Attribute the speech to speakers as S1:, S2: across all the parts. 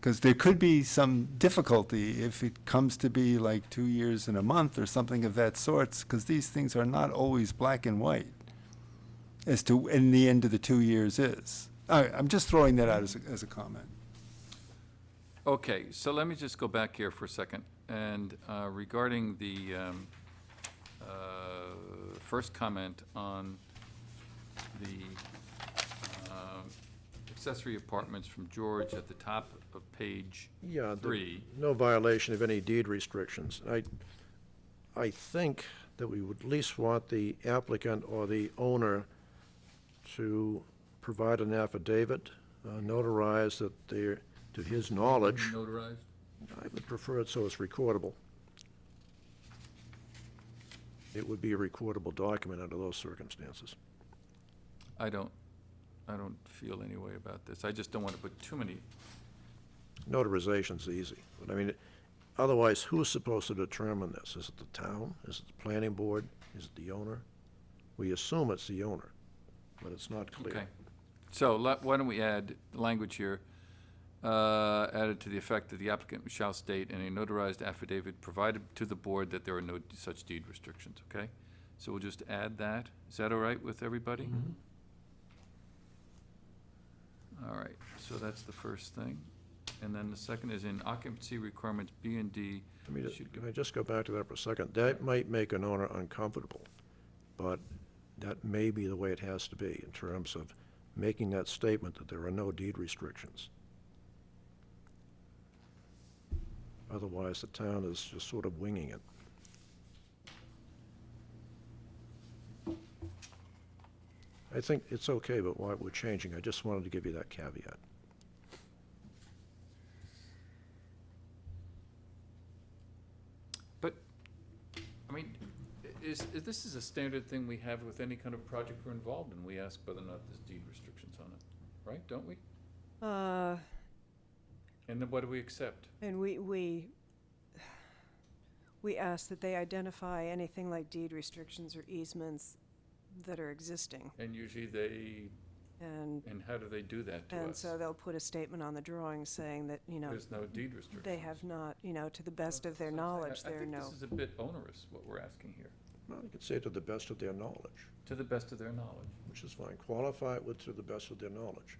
S1: Because there could be some difficulty if it comes to be like two years and a month or something of that sorts, because these things are not always black and white as to when the end of the two years is. I, I'm just throwing that out as a, as a comment.
S2: Okay, so let me just go back here for a second. And uh, regarding the um, uh, first comment on the um, accessory apartments from George at the top of page
S3: Yeah. the-
S2: three.
S3: No violation of any deed restrictions. I, I think that we would at least want the applicant or the owner to provide an affidavit, uh, notarized that they're, to his knowledge,
S2: Notarized?
S3: I would prefer it so it's recordable. It would be a recordable document under those circumstances.
S2: I don't, I don't feel any way about this. I just don't want to put too many,
S3: Notarization's easy, but I mean, otherwise, who's supposed to determine this? Is it the town? Is it the planning board? Is it the owner? We assume it's the owner, but it's not clear.
S2: okay. So let, why don't we add the language here, uh, added to the effect that the applicant shall state in a notarized affidavit provided to the board that there are no such deed restrictions, okay? So we'll just add that. Is that all right with everybody? All right, so that's the first thing. And then the second is in occupancy requirements, B and D.
S3: Let me, ju-
S2: should
S3: can I just go back to that for a second? That might make an owner uncomfortable, but that may be the way it has to be in terms of making that statement that there are no deed restrictions. Otherwise, the town is just sort of winging it. I think it's okay, but why we're changing, I just wanted to give you that caveat.
S2: But, I mean, i- is, is, this is a standard thing we have with any kind of project we're involved in. We ask whether or not there's deed restrictions on it, right? Don't we?
S4: Uh,
S2: And then what do we accept?
S4: and we, we, we ask that they identify anything like deed restrictions or easements that are existing.
S2: And usually they,
S4: And,
S2: and how do they do that to
S4: and
S2: us?
S4: so they'll put a statement on the drawing saying that, you know,
S2: There's no deed restrictions.
S4: they have not, you know, to the best of their
S2: That's what I'm saying.
S4: knowledge,
S2: I-
S4: there are
S2: I
S4: no.
S2: think this is a bit onerous, what we're asking here,
S3: Well, you could say to the best of their knowledge.
S2: to the best of their knowledge.
S3: which is fine, qualify it with to the best of their knowledge.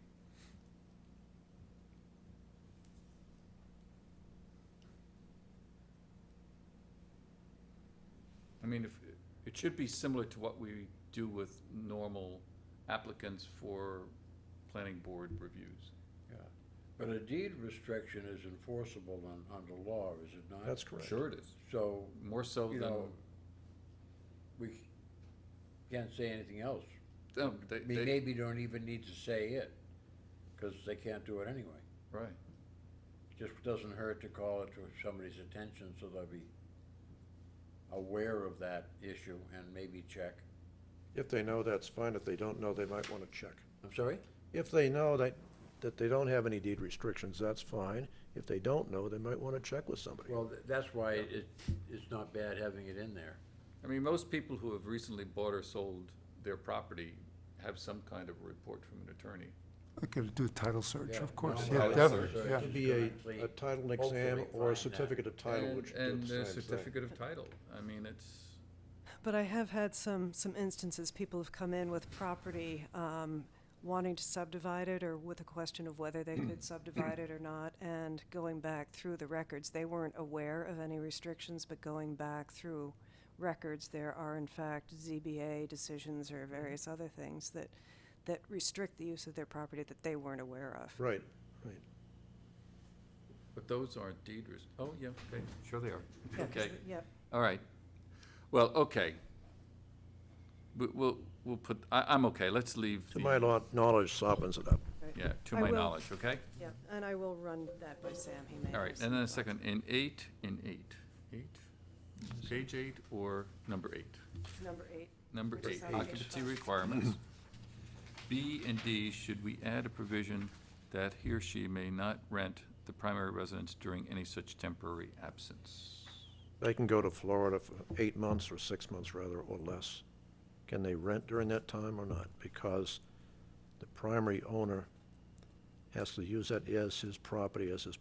S2: I mean, if, it should be similar to what we do with normal applicants for planning board reviews.
S5: Yeah, but a deed restriction is enforceable on, under law, is it not?
S3: That's correct.
S2: Sure it is,
S5: So,
S2: more so
S5: you
S2: than.
S5: know, we c- can't say anything else.
S2: Um, they,
S5: I mean,
S2: they,
S5: maybe don't even need to say it, because they can't do it anyway.
S2: right.
S5: Just doesn't hurt to call it to somebody's attention, so they'll be aware of that issue and maybe check.
S3: If they know, that's fine. If they don't know, they might want to check.
S5: I'm sorry?
S3: If they know that, that they don't have any deed restrictions, that's fine. If they don't know, they might want to check with somebody.
S5: Well, th- that's why it, it's not bad having it in there.
S2: I mean, most people who have recently bought or sold their property have some kind of a report from an attorney.
S1: I could do a title search,
S5: Yeah,
S1: of course,
S5: no,
S1: yeah,
S2: title
S1: definitely,
S5: search.
S1: yeah.
S3: It could be a, a title and exam
S5: Hopefully
S3: or a
S5: find that.
S3: certificate of title,
S2: And-
S3: which do
S2: And
S3: the
S2: a
S3: same thing.
S2: certificate of title. I mean, it's,
S4: But I have had some, some instances, people have come in with property, um, wanting to subdivide it or with a question of whether they could subdivide it or not. And going back through the records, they weren't aware of any restrictions, but going back through records, there are in fact ZBA decisions or various other things that, that restrict the use of their property that they weren't aware of.
S3: Right, right.
S2: but those aren't deed res- oh, yeah, okay, sure they are.
S4: Yeah, 'cause
S2: Okay,
S4: it- Yep.
S2: all right. Well, okay. We, we'll, we'll put, I, I'm okay, let's leave
S3: To my
S2: the,
S3: law- knowledge softens it up.
S2: yeah, to
S4: I
S2: my
S4: will-
S2: knowledge, okay?
S4: Yeah, and I will run that by Sam, he may have
S2: All right,
S4: some
S2: and then a
S4: thoughts.
S2: second, in eight, in eight, eight? Page eight or number eight?
S4: Number eight.
S2: Number
S4: Which
S2: eight,
S4: is on page
S2: occupancy
S4: five.
S2: requirements. B and D, should we add a provision that he or she may not rent the primary residence during any such temporary absence?
S3: They can go to Florida for eight months or six months rather, or less. Can they rent during that time or not? Because the primary owner has to use that as his property, as his